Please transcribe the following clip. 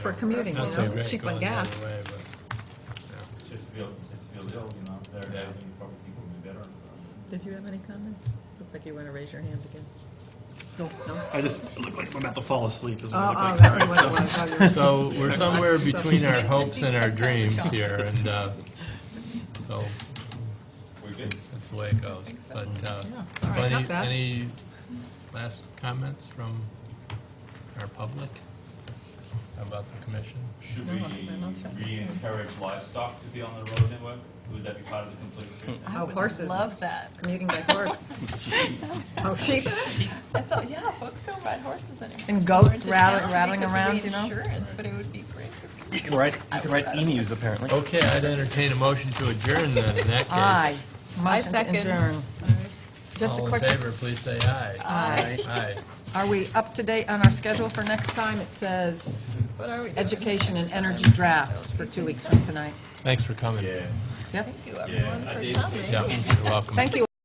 for commuting, you Not so know, bad cheap on going the other gas. way, but- Just feel, just feel ill, you know, there are days when you probably think we'll be better and stuff. Did you have any comments? Looks like you want to raise your hand again. No? I just look like I'm about to fall asleep. Is what I Oh, look oh, like. that was what it was. Oh, you were- So we're somewhere So- between our Just hopes eat and our 10 dreams pounds. here, and uh, so We're good. that's the way it goes. Thanks, But uh, Yeah, all right, any- got that. Any last comments from our public about the commission? Should No, we I think my mouth's shut. re-encourage livestock to be on the road network? Would that be part of the complete street? Oh, horses. Love that. Commuting by horse. Oh, sheep. That's all, yeah, folks don't ride horses anymore. And goats Or into rattling- town rattling because of the around, you know? Insurance, but it would be great. You can write, you can write emus apparently. Okay, I'd entertain a motion to adjourn then, in that case. Aye. Motion to second. adjourn. Just a All in question. favor, please say aye. Aye. Aye. Are we up to date on our schedule for next time? It says education and energy drafts for two weeks from tonight. Thanks for coming. Yeah, Yes? Thank you, everyone, yeah, I for did. coming. Yeah, you're welcome. Thank you.